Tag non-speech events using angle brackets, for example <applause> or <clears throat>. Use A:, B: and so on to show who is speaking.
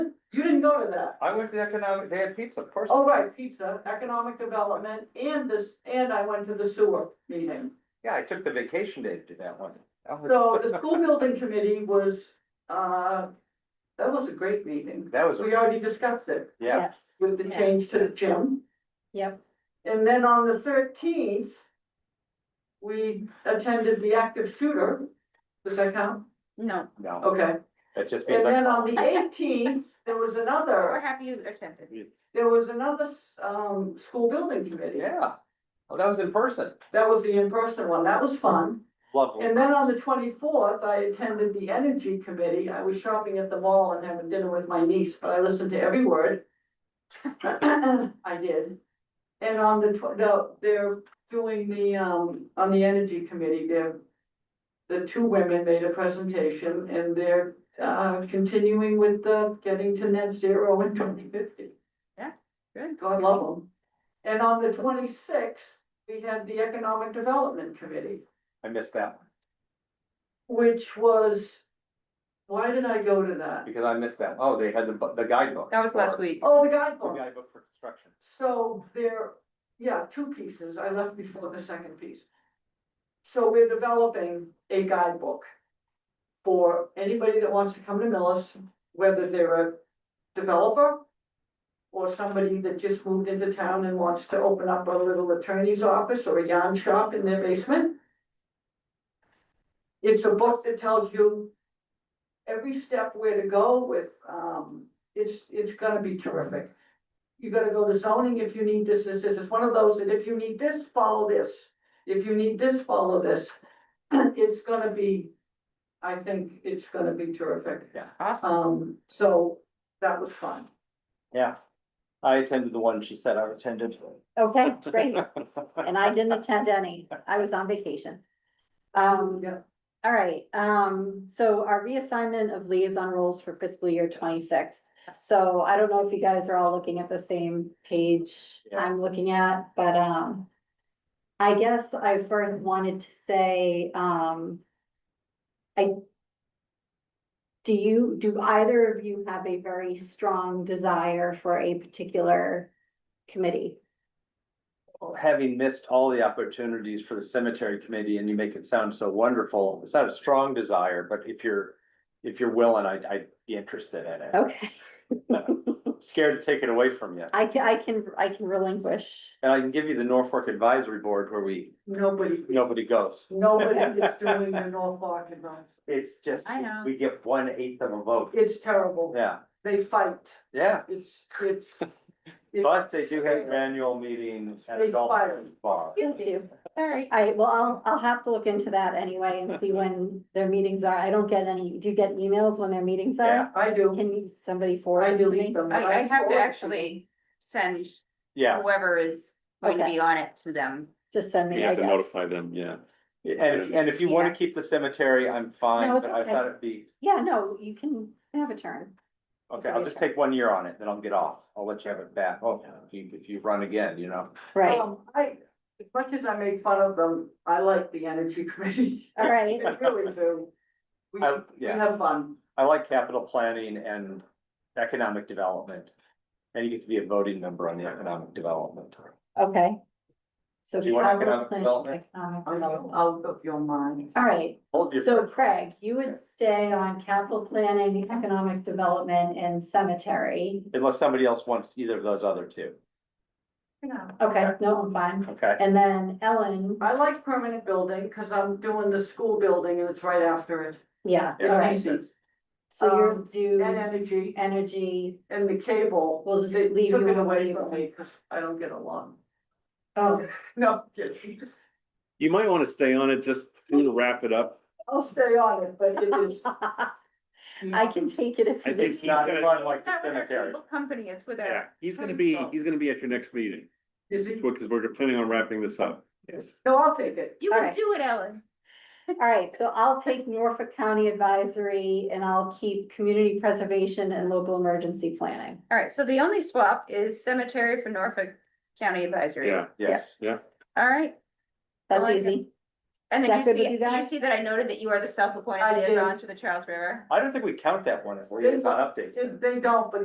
A: didn't go to that.
B: I went to the economic, they had pizza first.
A: Oh, right, pizza, economic development, and this, and I went to the sewer meeting.
B: Yeah, I took the vacation day to do that one. That was- <laughs>
A: So the school building committee was, uh, that was a great meeting.
B: That was,
A: We already discussed it
B: yeah,
A: with the
C: Yeah.
A: change to the gym.
C: Yep.
A: And then on the thirteenth, we attended the active shooter. Does that count?
C: No,
B: no,
A: Okay.
B: that just means
A: And
B: I.
A: then on the eighteenth, there was
C: we're
A: another,
C: happy you accepted.
A: there was another, um, school building committee.
B: Yeah, well, that was in person,
A: That was the in-person one. That was fun.
B: lovely.
A: And then on the twenty-fourth, I attended the energy committee. I was shopping at the mall and having dinner with my niece, but I listened to every word. <coughs> I did. And on the, tw- no, they're doing the, um, on the energy committee, they're, the two women made a presentation and they're, uh, continuing with the getting to net zero in twenty fifty.
C: Good.
A: God love them. And on the twenty-sixth, we had the economic development committee
B: I missed that one,
A: which was, why did I go to that?
B: because I missed that, oh, they had the, bu- the guidebook.
C: That was last
B: for-
C: week.
A: Oh, the
B: The
A: guidebook.
B: guidebook for construction.
A: So there, yeah, two pieces. I left before the second piece. So we're developing a guidebook for anybody that wants to come to Millis, whether they're a developer or somebody that just moved into town and wants to open up a little attorney's office or a yarn shop in their basement. It's a book that tells you every step where to go with, um, it's, it's gonna be terrific you gotta go to zoning if you need this, this, this, it's one of those, and if you need this, follow this. If you need this, follow this, <clears throat> it's gonna be, I think it's gonna be terrific.
C: Awesome.
A: Um, so that was fun.
B: Yeah, I attended the one she said I attended.
C: Oh, Okay,
B: <laughs>
C: great. And I didn't attend any. I was on vacation. Um,
A: Yeah,
C: all right, um, so our reassignment of liaison roles for fiscal year twenty-six. So I don't know if you guys are all looking at the same page
B: Yeah.
C: I'm looking at, but, um, I guess I first wanted to say, um, I, do you, do either of you have a very strong desire for a particular committee?
B: Having missed all the opportunities for the cemetery committee and you make it sound so wonderful, it's not a strong desire, but if you're, if you're willing, I'd, I'd be interested in it.
C: Okay,
B: Scared to take it away from you.
C: I can, I can, I can relinquish.
B: And I can give you the Norfolk Advisory Board where we,
A: nobody,
B: nobody goes.
A: nobody
B: <laughs>
A: is doing the Norfolk advice,
B: It's just,
C: I know.
B: we get one eighth of a vote.
A: it's terrible,
B: Yeah,
A: they fight,
B: yeah.
A: it's, it's. it's-
B: But they do have an annual meeting at
A: They
B: a golf
A: fired.
B: bar.
C: Sorry. I, well, I'll, I'll have to look into that anyway and see when their meetings are. I don't get any, do you get emails when their meetings
B: Yeah.
C: are?
A: I do,
C: Can you, somebody forward?
A: I
C: it to
A: delete
C: me?
A: them.
D: I, I have
A: forward
D: to
A: them.
D: actually send
B: Yeah,
D: whoever is going to
C: Okay.
D: be on it to them.
C: Just send me,
E: You
C: I
E: have to
C: guess.
E: notify them, yeah.
B: and, if- and if you wanna
D: Yeah.
B: keep the cemetery, I'm fine,
C: No, it's
B: but I
C: okay.
B: thought it'd be,
C: Yeah, no, you can have a turn.
B: okay, I'll just take one year on it, then I'll get off. I'll let you have it back. Oh, if you, if you run again, you know.
C: Right, all
A: Um, I, as much as I make fun of them, I like the energy committee, <laughs> I
C: right.
A: really do. We,
B: I-
A: we
B: yeah.
A: have fun.
B: I like capital planning and economic development. And you get to be a voting member on the economic development.
C: Okay. So.
B: Do you want
C: capital
B: economic
C: plan-
B: development?
C: economic
A: I'll
C: development.
A: out of your mind.
C: All right,
B: Hold your-
C: so Craig, you would stay on capital planning, economic development and cemetery.
B: Unless somebody else wants either of those other two,
C: Okay, no, I'm fine.
B: okay?
C: And then Ellen,
A: I like permanent building because I'm doing the school building and it's right after it.
C: yeah, all
B: Yeah.
C: right. So
A: Um,
C: you'll
A: And
C: do
A: energy
C: energy,
A: and the cable.
C: We'll just
A: they
C: leave
A: Took
C: you
A: it
C: on
A: away
C: cable.
A: from me because I don't get
C: <laughs>
A: along.
C: oh, <laughs>
A: No, kidding.
E: You might wanna stay on it just to wrap it up.
A: I'll stay on it, but it is.
C: <laughs> I can take it if
E: I
C: you
E: think
C: need.
E: he's gonna-
B: Not fun like
D: It's
B: the
D: not with our
B: cemetery.
D: cable company, it's with
E: Yeah,
D: our,
E: he's gonna be, he's gonna be at your next meeting,
A: Is it?
E: because we're planning on wrapping this up. Yes.
A: No, I'll take it.
D: you
C: All
D: can
C: right.
D: do it, Ellen.
C: All right, so I'll take Norfolk County Advisory and I'll keep community preservation and local emergency planning.
D: All right, so the only swap is cemetery for Norfolk County Advisory.
E: Yeah,
B: Yes,
D: All right,
C: That's
D: like it.
C: easy.
D: and
C: Is that
D: then you
C: good with
D: see,
C: you
D: you
C: guys?
D: see that I noted that you are the
A: I
D: self-appointed
A: did.
D: liaison to the Charles River.
B: I don't think we count that one as liaison updates.
A: They don't, but